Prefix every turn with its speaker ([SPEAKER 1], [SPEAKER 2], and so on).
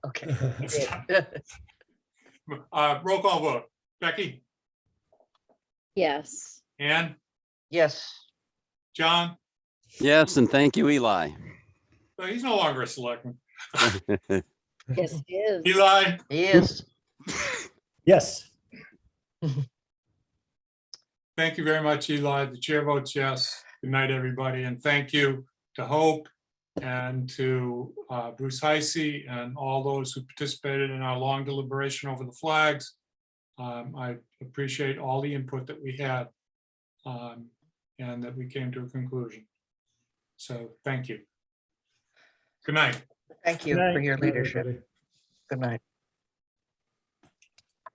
[SPEAKER 1] You did.
[SPEAKER 2] Uh, roll call vote. Becky,
[SPEAKER 3] Yes.
[SPEAKER 2] Ann,
[SPEAKER 1] Yes,
[SPEAKER 2] John,
[SPEAKER 4] Yes, and thank you, Eli.
[SPEAKER 2] Uh, he's no longer a selectman.
[SPEAKER 3] Yes, it is.
[SPEAKER 2] Eli,
[SPEAKER 1] he is.
[SPEAKER 5] Yes.
[SPEAKER 2] thank you very much, Eli. The chair votes yes. Good night, everybody, and thank you to Hope and to uh, Bruce Heisey and all those who participated in our long deliberation over the flags. Um, I appreciate all the input that we had um, and that we came to a conclusion. So thank you. Good night.
[SPEAKER 1] Thank you for your leadership. Good night.